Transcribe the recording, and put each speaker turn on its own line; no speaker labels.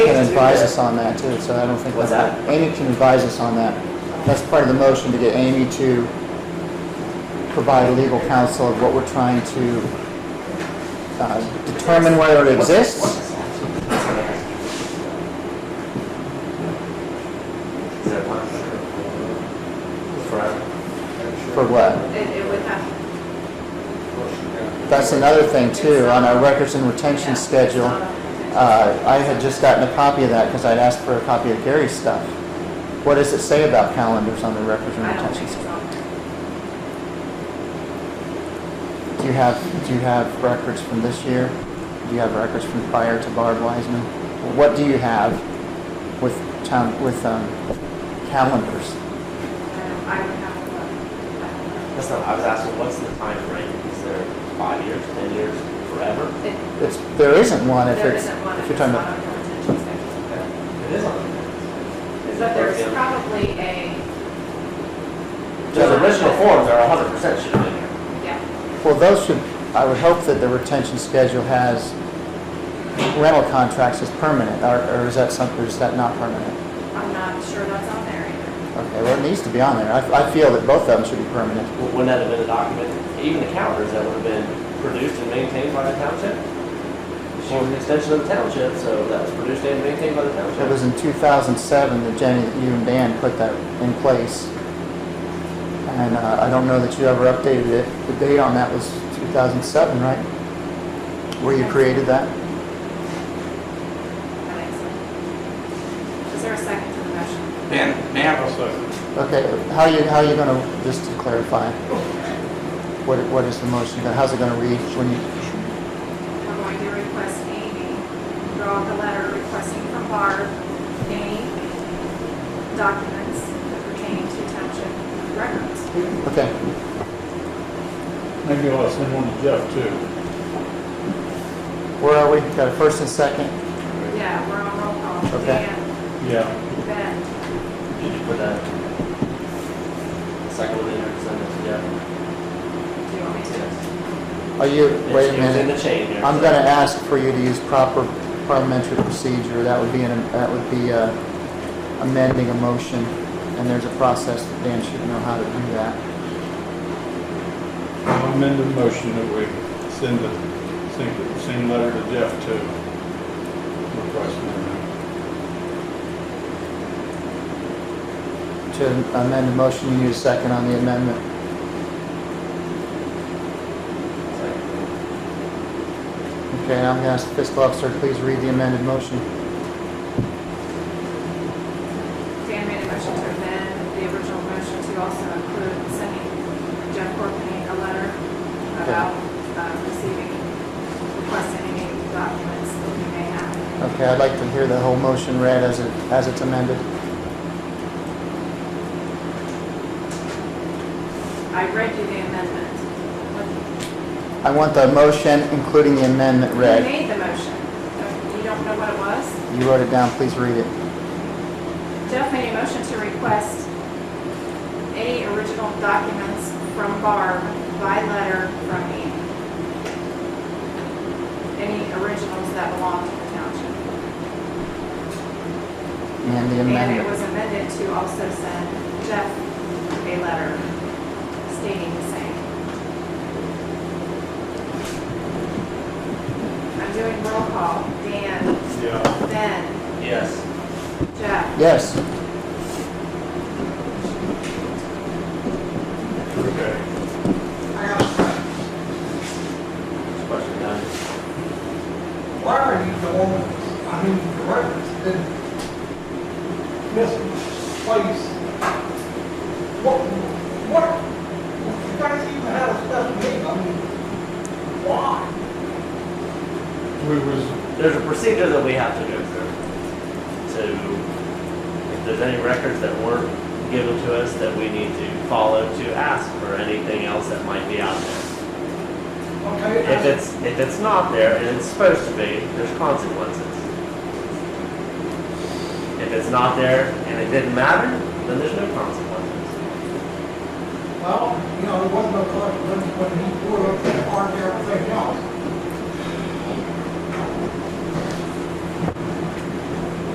advise us on that too, so I don't think.
What's that?
Amy can advise us on that. That's part of the motion to get Amy to provide legal counsel of what we're trying to uh, determine whether it exists.
Is that one? Forever?
For what?
It, it would have.
That's another thing too, on our records and retention schedule. Uh, I had just gotten a copy of that because I'd asked for a copy of Gary's stuff. What does it say about calendars on the records and
I don't think
retention?
it's
schedule?
on there.
Do you have, do you have records from this year? Do you have records from prior to Barb Wiseman? What do you have with town, with, um, calendars?
Um, I would have to look. I don't know.
That's not, I was asking, what's the time frame? Is there five years, ten years, forever?
It-
It's, there isn't one if
There
it's,
isn't one
if you're
if
talking
it's
about,
not on your retention schedule.
It is on there.
But there's probably a,
Those original forms are hundred percent should have been here.
yeah,
well, those should, I would hope that the retention schedule has rental contracts as permanent, or, or is that something, is that not permanent?
I'm not sure that's on there either.
Okay, well, it needs to be on there. I, I feel that both of them should be permanent.
Wouldn't that have been a document, even the calendars that would have been produced and maintained by the township? She was an extension of the township, so that was produced and maintained by the
It
township.
was in 2007 that Jenny, you and Dan put that in place. And uh, I don't know that you ever updated it. The date on that was 2007, right? Where you created that?
That makes sense. Is there a second to the motion?
Dan, Dan will second.
Okay, how you, how you gonna, just to clarify, what, what is the motion, gonna- how's it gonna read when you,
We're going to request Amy, draw the letter requesting from Barb any documents pertaining to township records.
okay.
Maybe I'll send one to Jeff too.
Where are we? Got a first and second?
Yeah, we're on roll call.
Okay.
Dan,
Yeah,
Ben,
Did you put that second one in there, send it to Jeff?
do you want me to?
Are you, wait a
It was in
minute.
the chain there.
I'm
so-
gonna ask for you to use proper parliamentary procedure, that would be, an that would be uh, amending a motion, and there's a process that Dan should know how to do that.
I'll amend the motion that we send the, send the same letter to Jeff too. Request an
To amend a motion, you need a second on the amendment. Okay, I'm gonna ask the fiscal officer, please read the amended motion.
Dan made a motion to amend the original motion to also include sending Jeff Courtney a letter about uh, receiving, requesting any documents that he may have.
Okay, I'd like to hear the whole motion read as it, as it's amended.
I read you the amendment.
I want the motion, including the amendment
You
read.
made the motion. You don't know what it was?
You wrote it down, please read it.
Jeff made a motion to request any original documents from Barb by letter from me. Any originals that belong to the township.
And the
And it
amendment.
was amended to also send Jeff a letter stating the same. I'm doing roll call. Dan,
amendment. Yeah,
Ben,
Yes.
Jeff,
Yes,
okay.
Question done.
Why are you the one, I mean, the records been misplaced? What, what, you guys even had a special meeting, I mean, why?
We was,
There's a procedure that we have to go through to, if there's any records that weren't given to us that we need to follow to ask for anything else that might be out there.
Okay,
If
that's-
it's, if it's not there and it's supposed to be, there's consequences. If it's not there and it didn't matter, then there's no consequences.
well, you know, there wasn't no collection when, when he put up that hard and everything else.